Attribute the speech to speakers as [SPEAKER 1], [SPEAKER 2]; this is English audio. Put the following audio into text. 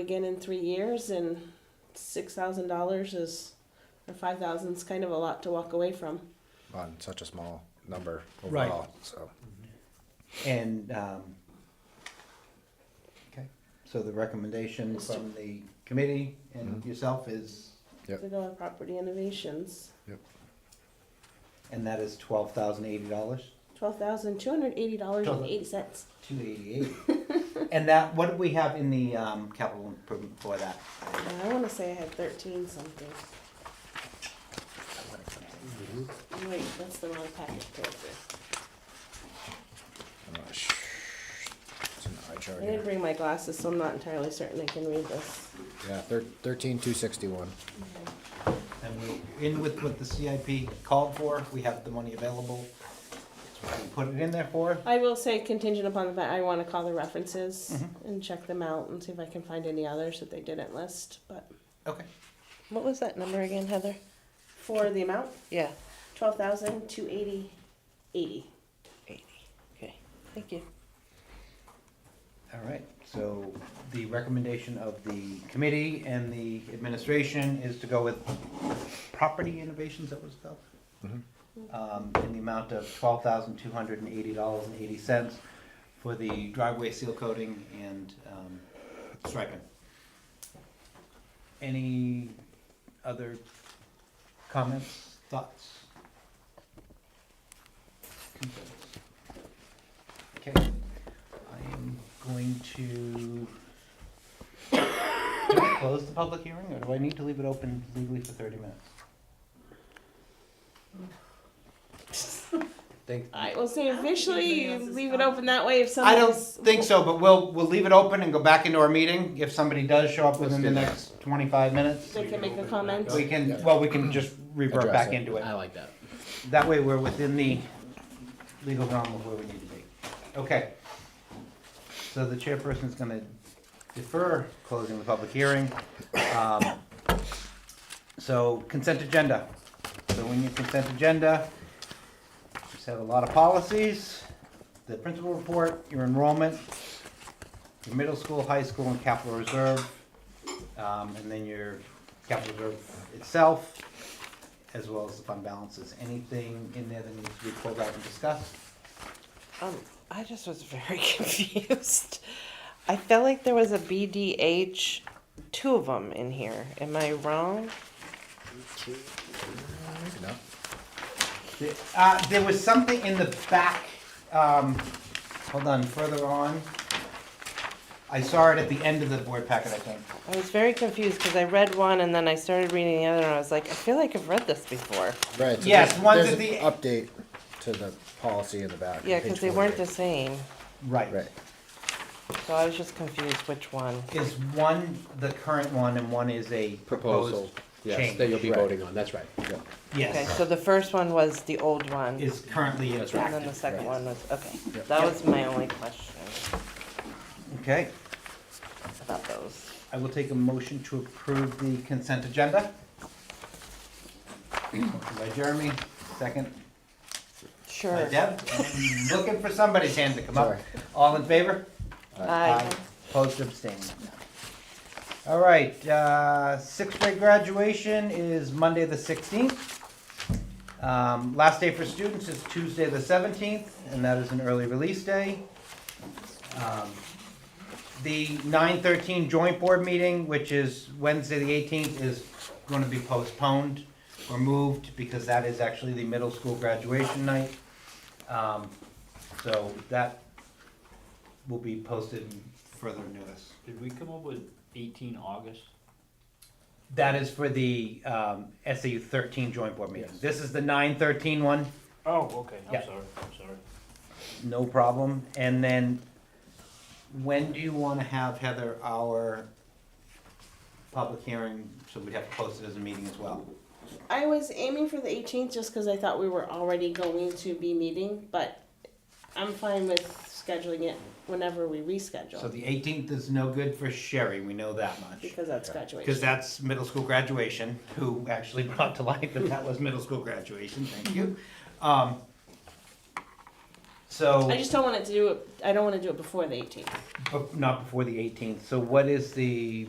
[SPEAKER 1] again in three years and six thousand dollars is or five thousand is kind of a lot to walk away from.
[SPEAKER 2] on such a small number
[SPEAKER 3] Right.
[SPEAKER 2] overall, so.
[SPEAKER 3] And, um, okay, so the recommendation from the committee and yourself is,
[SPEAKER 2] Yep.
[SPEAKER 1] To go on property innovations.
[SPEAKER 3] and that is twelve thousand eighty dollars?
[SPEAKER 1] Twelve thousand two hundred eighty dollars and eighty cents.
[SPEAKER 3] Two eighty-eight. And that, what do we have in the, um, capital improvement for that?
[SPEAKER 1] I wanna say I had thirteen something.
[SPEAKER 2] Mm-hmm.
[SPEAKER 1] Wait, that's the wrong packet character.
[SPEAKER 2] I'm not sh- It's an eye chart
[SPEAKER 1] I didn't
[SPEAKER 2] here.
[SPEAKER 1] bring my glasses, so I'm not entirely certain I can read this.
[SPEAKER 2] Yeah, thir- thirteen two sixty-one.
[SPEAKER 3] And we're in with what the CIP called for, we have the money available. That's what we Put it in there for,
[SPEAKER 1] I will say contingent upon the fact I wanna call the references
[SPEAKER 2] Mm-hmm.
[SPEAKER 1] and check them out and see if I can find any others that they didn't list, but.
[SPEAKER 3] okay.
[SPEAKER 4] What was that number again, Heather?
[SPEAKER 1] For the amount?
[SPEAKER 4] Yeah,
[SPEAKER 1] Twelve thousand two eighty eighty.
[SPEAKER 4] eighty. Okay, thank you.
[SPEAKER 3] All right, so the recommendation of the committee and the administration is to go with Property Innovations, that was called? Um, in the amount of twelve thousand two hundred and eighty dollars and eighty cents for the driveway seal coating and, um, striping. Any other comments, thoughts? Concerns? Okay. I am going to Do I close the public hearing, or do I need to leave it open legally for thirty minutes? Think,
[SPEAKER 1] I will say officially, you
[SPEAKER 4] else is
[SPEAKER 1] leave it
[SPEAKER 4] gone.
[SPEAKER 1] open that way if
[SPEAKER 3] I don't
[SPEAKER 1] somebody's.
[SPEAKER 3] think so, but we'll, we'll leave it open and go back into our meeting. If somebody does show up within the next twenty-five minutes,
[SPEAKER 1] They can make a comment.
[SPEAKER 3] we can, well, we can just revert
[SPEAKER 2] Address
[SPEAKER 3] back
[SPEAKER 2] it.
[SPEAKER 3] into it.
[SPEAKER 5] I like that.
[SPEAKER 3] That way, we're within the legal realm of where we need to be. Okay. So the chairperson's gonna defer closing the public hearing. Um, So consent agenda. So when you consent agenda, just have a lot of policies, the principal report, your enrollment, your middle school, high school, and capital reserve, um, and then your capital reserve itself, as well as the fund balances. Anything in there that needs to be pulled out and discussed?
[SPEAKER 4] Um, I just was very confused. I felt like there was a BDH, two of them in here. Am I wrong? Uh-huh.
[SPEAKER 2] Maybe not.
[SPEAKER 3] The- Uh, there was something in the back, um, hold on, further on. I saw it at the end of the board packet, I think.
[SPEAKER 4] I was very confused because I read one and then I started reading the other and I was like, I feel like I've read this before.
[SPEAKER 2] Right, so
[SPEAKER 3] Yes,
[SPEAKER 2] there's,
[SPEAKER 3] one's
[SPEAKER 2] there's
[SPEAKER 3] at the-
[SPEAKER 2] an update to the policy in the back. on
[SPEAKER 4] Yeah,
[SPEAKER 2] page
[SPEAKER 4] because they weren't the
[SPEAKER 2] 48.
[SPEAKER 4] same.
[SPEAKER 3] Right.
[SPEAKER 2] Right,
[SPEAKER 4] So I was just confused which one.
[SPEAKER 3] Is one the current one and one is a
[SPEAKER 5] Proposal,
[SPEAKER 3] proposed
[SPEAKER 5] yes, that
[SPEAKER 3] change?
[SPEAKER 5] you'll be
[SPEAKER 2] Right.
[SPEAKER 5] voting on, that's right.
[SPEAKER 2] yeah.
[SPEAKER 4] Okay,
[SPEAKER 3] Yes,
[SPEAKER 4] so the first one was the old one.
[SPEAKER 3] is currently
[SPEAKER 5] That's right.
[SPEAKER 4] And then the
[SPEAKER 3] active.
[SPEAKER 4] second one was, okay.
[SPEAKER 2] Yep.
[SPEAKER 4] That was my only question
[SPEAKER 3] Okay,
[SPEAKER 4] about those.
[SPEAKER 3] I will take a motion to approve the consent agenda. Motion By Jeremy, second by
[SPEAKER 4] Sure.
[SPEAKER 3] Deb. Looking for somebody's hand to come up.
[SPEAKER 2] Sorry.
[SPEAKER 3] All in favor?
[SPEAKER 4] Aye.
[SPEAKER 3] Opposed, abstained. All right, uh, sixth grade graduation is Monday, the sixteenth. Um, last day for students is Tuesday, the seventeenth, and that is an early release day. Um, The nine thirteen joint board meeting, which is Wednesday, the eighteenth, is gonna be postponed or moved because that is actually the middle school graduation night. Um, so that will be posted in further notice.
[SPEAKER 6] Did we come up with eighteen August?
[SPEAKER 3] That is for the um, SAU 13 joint board meeting. This is the 913 one,
[SPEAKER 6] Oh, okay,
[SPEAKER 3] Yeah.
[SPEAKER 6] I'm sorry, I'm sorry.
[SPEAKER 3] no problem. And then, when do you want to have, Heather, our public hearing? So we'd have to post it as a meeting as well.
[SPEAKER 1] I was aiming for the eighteenth just because I thought we were already going to be meeting, but I'm fine with scheduling it whenever we
[SPEAKER 3] So
[SPEAKER 1] reschedule.
[SPEAKER 3] the 18th is no good for Sherry, we know that much.
[SPEAKER 1] Because that's
[SPEAKER 3] Because
[SPEAKER 1] graduation.
[SPEAKER 3] that's middle school graduation, who actually brought to light that that was middle school graduation, thank you. Um, So.
[SPEAKER 1] I just don't want it to do it, I don't want to do it before the eighteenth.
[SPEAKER 3] But not before the eighteenth, so what is the